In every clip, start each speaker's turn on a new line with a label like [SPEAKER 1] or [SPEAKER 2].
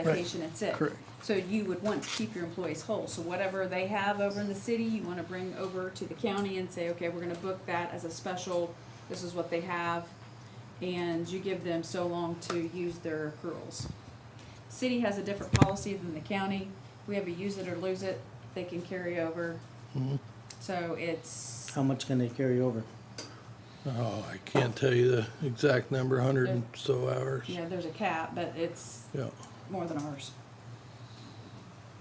[SPEAKER 1] vacation and sick.
[SPEAKER 2] Correct.
[SPEAKER 1] So you would want to keep your employees whole, so whatever they have over in the city, you wanna bring over to the county and say, okay, we're gonna book that as a special, this is what they have, and you give them so long to use their accruals. City has a different policy than the county, we have a use it or lose it, they can carry over. So it's,
[SPEAKER 3] How much can they carry over?
[SPEAKER 2] Oh, I can't tell you the exact number, hundred and so hours.
[SPEAKER 1] you know, there's a cap, but it's
[SPEAKER 2] Yeah,
[SPEAKER 1] more than ours.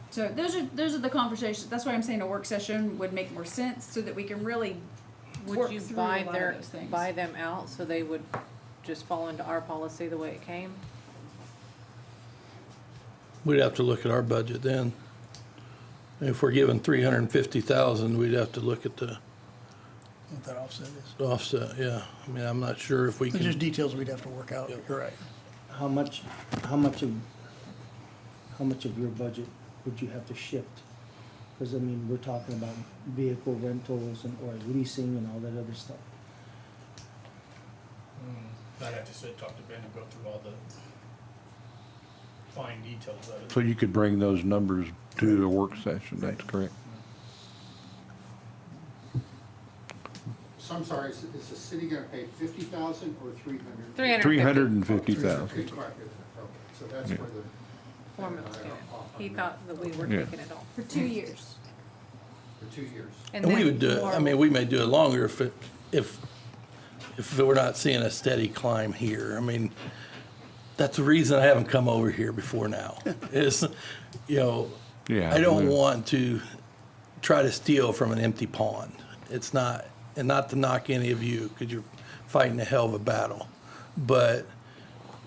[SPEAKER 1] So those are, those are the conversations, that's why I'm saying a work session would make more sense, so that we can really work
[SPEAKER 4] Would you
[SPEAKER 1] through a
[SPEAKER 4] buy
[SPEAKER 1] lot
[SPEAKER 4] their,
[SPEAKER 1] of those things.
[SPEAKER 4] buy them out so they would just fall into our policy the way it came?
[SPEAKER 2] we'd have to look at our budget then. If we're given three hundred and fifty thousand, we'd have to look at the
[SPEAKER 5] what that offset is.
[SPEAKER 2] offset, yeah. I mean, I'm not sure if we
[SPEAKER 5] There's just
[SPEAKER 2] can,
[SPEAKER 5] details we'd have to work out,
[SPEAKER 2] Yep.
[SPEAKER 5] you're right.
[SPEAKER 3] How much, how much of, how much of your budget would you have to shift? Cause I mean, we're talking about vehicle rentals and, or leasing and all that other stuff.
[SPEAKER 6] I'd have to sit, talk to Ben and go through all the fine details of it.
[SPEAKER 7] So you could bring those numbers to the work session, that's correct.
[SPEAKER 8] So I'm sorry, is, is the city gonna pay fifty thousand or three hundred?
[SPEAKER 4] Three hundred
[SPEAKER 7] Three hundred
[SPEAKER 4] and
[SPEAKER 7] and fifty thousand.
[SPEAKER 8] So that's where the.
[SPEAKER 4] fifty formula came. He thought that we were
[SPEAKER 7] Yeah.
[SPEAKER 4] taking it all.
[SPEAKER 1] For two years.
[SPEAKER 8] For two years.
[SPEAKER 2] and we
[SPEAKER 4] then
[SPEAKER 2] would do it, I
[SPEAKER 4] more-
[SPEAKER 2] mean, we may do it longer if, it- if, if we're not seeing a steady climb here. I mean, that's the reason I haven't come over here before now, is, you know,
[SPEAKER 7] Yeah,
[SPEAKER 2] I don't
[SPEAKER 7] we-
[SPEAKER 2] want to try to steal from an empty pond. It's not, and not to knock any of you, because you're fighting a hell of a battle. But,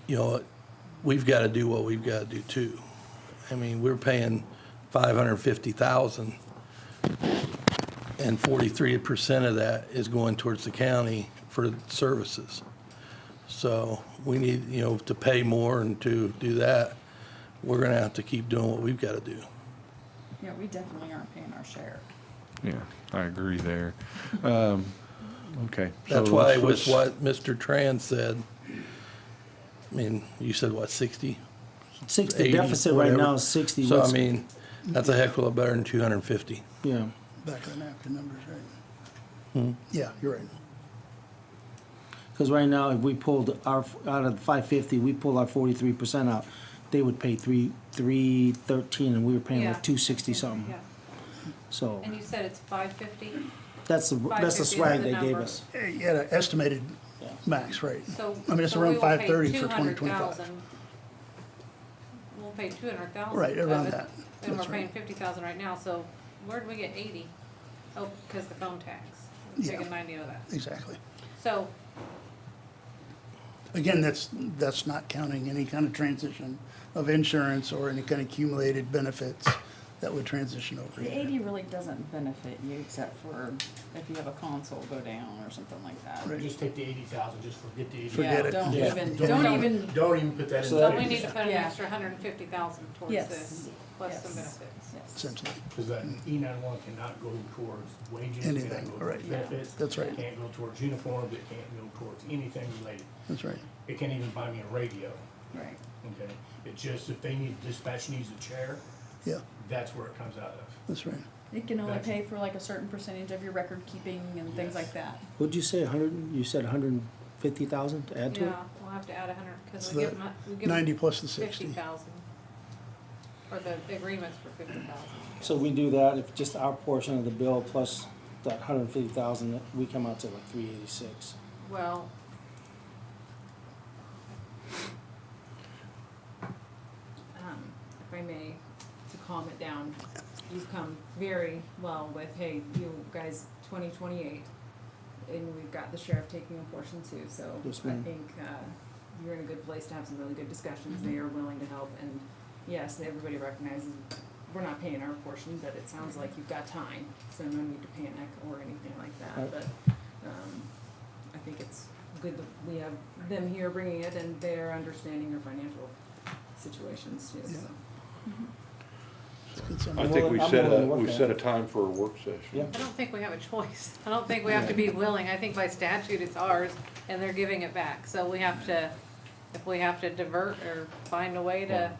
[SPEAKER 2] you know, we've got to do what we've got to do too. I mean, we're paying five hundred and fifty thousand, and forty-three percent of that is going towards the county for services. So we need, you know, to pay more and to do that, we're gonna have to keep doing what we've got to do.
[SPEAKER 1] Yeah, we definitely aren't paying our share.
[SPEAKER 7] Yeah, I agree there. Um, okay. so
[SPEAKER 2] That's why
[SPEAKER 7] let's-
[SPEAKER 2] with
[SPEAKER 7] let's-
[SPEAKER 2] what Mr. Tran said, I mean, you said what, sixty?
[SPEAKER 3] Sixty
[SPEAKER 2] 80,
[SPEAKER 3] deficit right now
[SPEAKER 2] whatever.
[SPEAKER 3] is sixty.
[SPEAKER 2] So I
[SPEAKER 3] What's-
[SPEAKER 2] mean, that's a heck of a lot better than two hundred and fifty.
[SPEAKER 3] Yeah,
[SPEAKER 5] Back of the napkin numbers, right?
[SPEAKER 2] Hmm.
[SPEAKER 5] Yeah, you're right.
[SPEAKER 3] cause right now, if we pulled our, out of the five fifty, we pull our forty-three percent out, they would pay three, three thirteen and we were paying
[SPEAKER 1] Yeah.
[SPEAKER 3] like two sixty something. So,
[SPEAKER 4] And you said it's five fifty,
[SPEAKER 3] that's the, that's the
[SPEAKER 4] 550 is
[SPEAKER 3] swag
[SPEAKER 4] the
[SPEAKER 3] they gave
[SPEAKER 4] number.
[SPEAKER 3] us.
[SPEAKER 5] Eh, You had an estimated max rate.
[SPEAKER 4] so.
[SPEAKER 5] I mean, it's
[SPEAKER 4] so we
[SPEAKER 5] around
[SPEAKER 4] will pay
[SPEAKER 5] five thirty for twenty
[SPEAKER 4] 200,000.
[SPEAKER 5] twenty-five.
[SPEAKER 4] We'll pay two hundred thousand.
[SPEAKER 5] Right, around that.
[SPEAKER 4] And we're
[SPEAKER 5] That's right.
[SPEAKER 4] paying fifty thousand right now, so where'd we get eighty? Oh, because the phone tax, we're
[SPEAKER 5] Yeah.
[SPEAKER 4] taking ninety of that.
[SPEAKER 5] Exactly.
[SPEAKER 4] So,
[SPEAKER 5] Again, that's, that's not counting any kind of transition of insurance or any kind of accumulated benefits that would transition over.
[SPEAKER 1] The
[SPEAKER 5] either.
[SPEAKER 1] eighty really doesn't benefit you, except for if you have a console go down or something like that.
[SPEAKER 5] Right.
[SPEAKER 6] Just take the eighty thousand, just forget the eighty.
[SPEAKER 5] Forget
[SPEAKER 1] Yeah,
[SPEAKER 5] it.
[SPEAKER 1] don't
[SPEAKER 5] Yeah.
[SPEAKER 1] even, don't even,
[SPEAKER 6] Don't even put that in.
[SPEAKER 3] So
[SPEAKER 6] the
[SPEAKER 4] but we need to put an
[SPEAKER 1] Yeah.
[SPEAKER 4] extra hundred and fifty thousand towards
[SPEAKER 1] Yes.
[SPEAKER 4] this, plus some
[SPEAKER 1] Yes.
[SPEAKER 4] benefits.
[SPEAKER 1] yes.
[SPEAKER 5] Essentially,
[SPEAKER 6] Because that E nine one cannot go towards wages.
[SPEAKER 5] Anything,
[SPEAKER 6] cannot go towards
[SPEAKER 5] right.
[SPEAKER 6] Benefits.
[SPEAKER 5] That's right.
[SPEAKER 6] It Can't go towards uniforms, it can't go towards anything related.
[SPEAKER 5] that's right.
[SPEAKER 6] It can't even buy me a radio,
[SPEAKER 1] Right.
[SPEAKER 6] okay? It just, if they need, dispatch needs a chair,
[SPEAKER 5] Yeah,
[SPEAKER 6] that's where it comes out of.
[SPEAKER 5] that's right.
[SPEAKER 1] It can only
[SPEAKER 6] That's-
[SPEAKER 1] pay for like a certain percentage of your record keeping and things
[SPEAKER 6] Yes.
[SPEAKER 1] like that.
[SPEAKER 3] What'd you say, a hundred, you said hundred and fifty thousand to add to it?
[SPEAKER 4] Yeah, we'll have to add a hundred,
[SPEAKER 5] It's
[SPEAKER 4] because we give
[SPEAKER 5] the
[SPEAKER 4] them, we give
[SPEAKER 5] Ninety
[SPEAKER 4] them
[SPEAKER 5] plus the
[SPEAKER 4] fifty
[SPEAKER 5] sixty.
[SPEAKER 4] thousand. Or the agreements for fifty thousand.
[SPEAKER 3] So we do that, if just our portion of the bill plus that hundred and fifty thousand, we come out to like three eighty-six.
[SPEAKER 4] Well,
[SPEAKER 9] um, if I may, to calm it down, you've come very well with, hey, you guys, twenty twenty-eight, and we've got the sheriff taking a portion too, so I
[SPEAKER 3] Yes, ma'am.
[SPEAKER 9] think, uh, you're in a good place to have some really good discussions,
[SPEAKER 3] Mm-hmm.
[SPEAKER 9] they are willing to help, and yes, everybody recognizes we're not paying our portion, but it sounds like you've got time, so no need to panic or anything like
[SPEAKER 3] Right.
[SPEAKER 9] that, but, um, I think it's good that we have them here bringing it and they're understanding your financial situations too, so.
[SPEAKER 5] It's
[SPEAKER 3] I'm
[SPEAKER 10] I
[SPEAKER 5] something-
[SPEAKER 10] think
[SPEAKER 3] willing-
[SPEAKER 10] we
[SPEAKER 3] I'm
[SPEAKER 10] set
[SPEAKER 3] willing
[SPEAKER 10] a,
[SPEAKER 3] to work
[SPEAKER 10] we
[SPEAKER 3] on
[SPEAKER 10] set
[SPEAKER 3] it.
[SPEAKER 10] a time for a work session.
[SPEAKER 3] Yeah.
[SPEAKER 4] I don't think we have a choice. I don't think we have to be willing. I think by statute, it's ours, and they're giving it back. So we have to, if we have to divert or find a way to